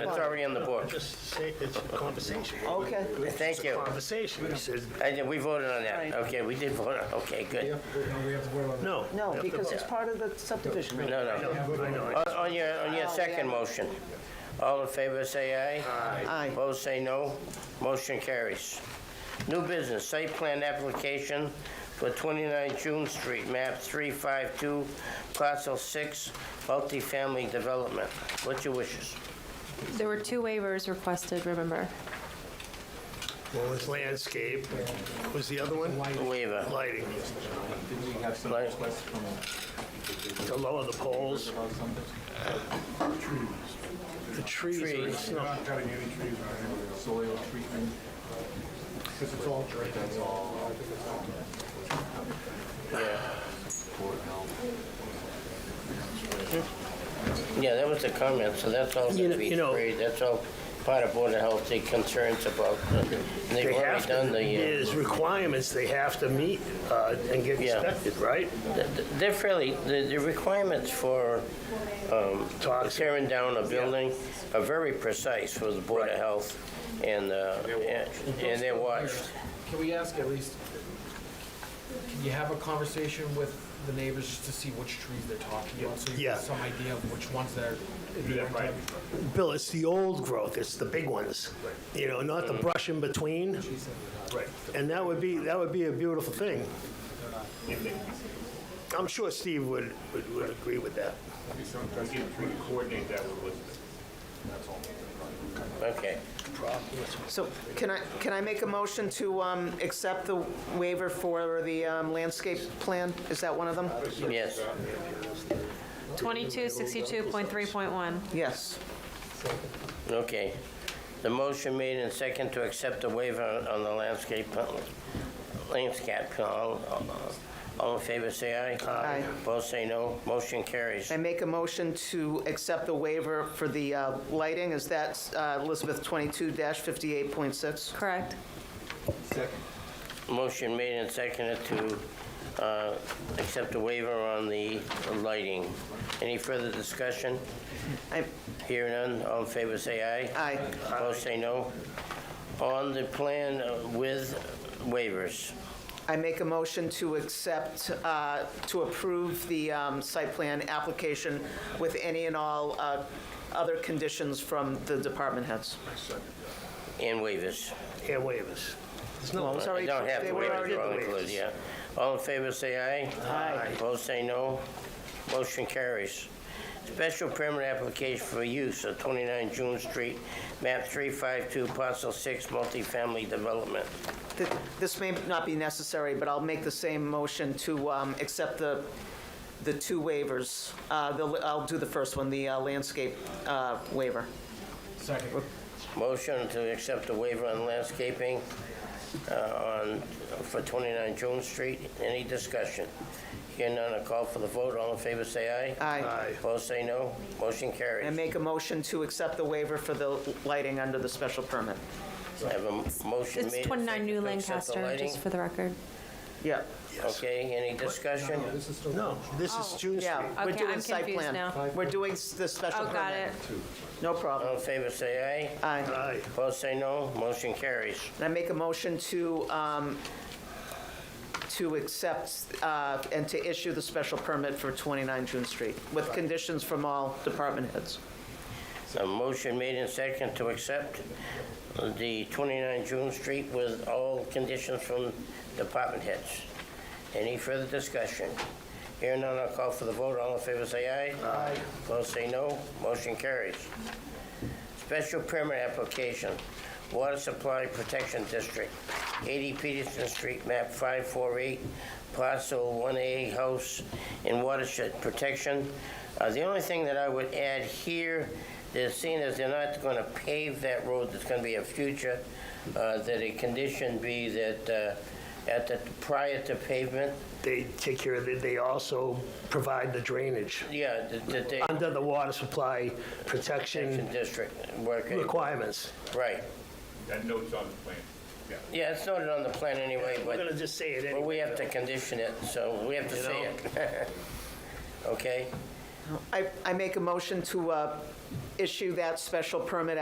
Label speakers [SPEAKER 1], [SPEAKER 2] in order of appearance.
[SPEAKER 1] It's already on the board.
[SPEAKER 2] Just say, it's a conversation.
[SPEAKER 3] Okay.
[SPEAKER 2] It's
[SPEAKER 1] Thank
[SPEAKER 2] a
[SPEAKER 1] you.
[SPEAKER 2] Conversation. It's- it's-
[SPEAKER 1] I did- We voted on
[SPEAKER 3] Right.
[SPEAKER 1] that. Okay, we did vote, on- okay, good.
[SPEAKER 2] No.
[SPEAKER 3] No, because it's part of the subdivision.
[SPEAKER 1] No, no. On- On your, on your
[SPEAKER 3] Oh,
[SPEAKER 1] second
[SPEAKER 3] yeah.
[SPEAKER 1] motion, all in favor, say aye.
[SPEAKER 3] Aye.
[SPEAKER 1] Opposed, say no. Motion carries. New business, site plan application for 29 June Street, map 352, parcel 6, multifamily development. What's your wishes?
[SPEAKER 4] There were two waivers requested, remember?
[SPEAKER 2] One was landscape. What was the other one?
[SPEAKER 1] Waiver.
[SPEAKER 2] Lighting.
[SPEAKER 1] Like-
[SPEAKER 2] To lower the poles. The trees.
[SPEAKER 1] Trees.
[SPEAKER 2] It's not-
[SPEAKER 5] Not cutting any trees or any soil treatment, because it's all drained, that's all.
[SPEAKER 1] Yeah, that was the comment, so that's all
[SPEAKER 2] You
[SPEAKER 1] gonna
[SPEAKER 2] know-
[SPEAKER 1] be
[SPEAKER 2] you know-
[SPEAKER 1] sprayed, that's all part of Board of Health, the concerns about, the- they've
[SPEAKER 2] They
[SPEAKER 1] already
[SPEAKER 2] have
[SPEAKER 1] done
[SPEAKER 2] to,
[SPEAKER 1] the, uh,
[SPEAKER 2] there's requirements they have to meet uh, and get
[SPEAKER 1] Yeah.
[SPEAKER 2] inspected, right?
[SPEAKER 1] th- th- they're fairly, the the requirements for um,
[SPEAKER 2] Toxic.
[SPEAKER 1] tearing down a building are very precise for the Board of Health, and, uh, and and they're watched.
[SPEAKER 6] Can we ask at least, can you have a conversation with the neighbors just to see which trees they're talking about? So you
[SPEAKER 2] Yeah.
[SPEAKER 6] get some idea of which ones they're.
[SPEAKER 2] Bill, it's the old growth, it's the big ones, you know, not the brush in between. And that would be, that would be a beautiful thing. I'm sure Steve would, would, would agree with that.
[SPEAKER 5] Coordinate that with Elizabeth.
[SPEAKER 1] Okay.
[SPEAKER 3] So can I, can I make a motion to um, accept the waiver for the um, landscape plan? Is that one of them?
[SPEAKER 1] Yes.
[SPEAKER 4] 2262.3.1.
[SPEAKER 3] Yes.
[SPEAKER 1] Okay. The motion made and second to accept the waiver on- on the landscape, plan- landscape, plan. all, all- all in favor, say aye.
[SPEAKER 3] Aye.
[SPEAKER 1] Opposed, say no. Motion carries.
[SPEAKER 3] I make a motion to accept the waiver for the uh, lighting. Is that uh, Elizabeth 22-58.6?
[SPEAKER 4] Correct.
[SPEAKER 1] Motion made and seconded to uh, accept the waiver on the lighting. Any further discussion?
[SPEAKER 3] I-
[SPEAKER 1] Hearing none, all in favor, say aye.
[SPEAKER 3] Aye.
[SPEAKER 1] Opposed, say no. On the plan uh, with waivers.
[SPEAKER 3] I make a motion to accept, uh, to approve the um, site plan application with any and all uh, other conditions from the department heads.
[SPEAKER 1] And waivers.
[SPEAKER 2] Yeah, waivers. There's no-
[SPEAKER 3] Well, it's
[SPEAKER 1] I
[SPEAKER 3] already-
[SPEAKER 1] don't have
[SPEAKER 3] they
[SPEAKER 1] to
[SPEAKER 3] were
[SPEAKER 1] wait
[SPEAKER 3] already-
[SPEAKER 1] for all included, yeah. All in favor, say aye.
[SPEAKER 3] Aye.
[SPEAKER 1] Opposed, say no. Motion carries. Special permit application for use of 29 June Street, map 352, parcel 6, multifamily development.
[SPEAKER 3] Th- This may not be necessary, but I'll make the same motion to um, accept the, the two waivers. Uh, the- I'll do the first one, the uh, landscape uh, waiver.
[SPEAKER 6] Second.
[SPEAKER 1] Motion to accept the waiver on landscaping uh, on, for 29 June Street. Any discussion? Hearing none, a call for the vote. All in favor, say aye.
[SPEAKER 3] Aye.
[SPEAKER 2] Aye.
[SPEAKER 1] Opposed, say no. Motion carries.
[SPEAKER 3] And make a motion to accept the waiver for the lighting under the special permit.
[SPEAKER 1] I have a motion made.
[SPEAKER 4] It's 29 New
[SPEAKER 1] to accept the
[SPEAKER 4] Lancaster, just
[SPEAKER 1] lighting.
[SPEAKER 4] for the record.
[SPEAKER 3] Yep.
[SPEAKER 1] Okay, any discussion?
[SPEAKER 2] No, this is June Street.
[SPEAKER 3] Yeah, we're
[SPEAKER 4] Okay,
[SPEAKER 3] doing
[SPEAKER 4] I'm
[SPEAKER 3] site
[SPEAKER 4] confused
[SPEAKER 3] plan.
[SPEAKER 4] now.
[SPEAKER 3] We're doing s- the special
[SPEAKER 4] Oh,
[SPEAKER 3] permit.
[SPEAKER 4] got it.
[SPEAKER 3] No
[SPEAKER 1] All
[SPEAKER 3] problem.
[SPEAKER 1] in favor, say aye.
[SPEAKER 3] Aye.
[SPEAKER 2] Aye.
[SPEAKER 1] Opposed, say no. Motion carries.
[SPEAKER 3] And I make a motion to, um, to accept uh, and to issue the special permit for 29 June Street with conditions from all department heads.
[SPEAKER 1] A motion made and second to accept the 29 June Street with all conditions from department heads. Any further discussion? Hearing none, I'll call for the vote. All in favor, say aye. Aye. Opposed, say no. Motion carries. Special permit application, Water Supply Protection District, 80 Peterson Street, map 548, parcel 1A, house and watershed protection. Uh, The only thing that I would add here, they're seeing as they're not going to pave that road, there's going to be a future, uh, that a condition be that uh, at the, prior to pavement,
[SPEAKER 2] They take care of, it. they also provide the drainage
[SPEAKER 1] yeah, that- that they,
[SPEAKER 2] under the water supply protection
[SPEAKER 1] Protection District, work,
[SPEAKER 2] requirements.
[SPEAKER 1] right.
[SPEAKER 5] That note's on the plan, yeah.
[SPEAKER 1] Yeah, it's noted on the plan anyway, but
[SPEAKER 2] We're gonna just say it
[SPEAKER 1] Well,
[SPEAKER 2] anyway.
[SPEAKER 1] we have to condition it, so we have to say it. Okay?
[SPEAKER 3] I, I make a motion to uh, issue that special permit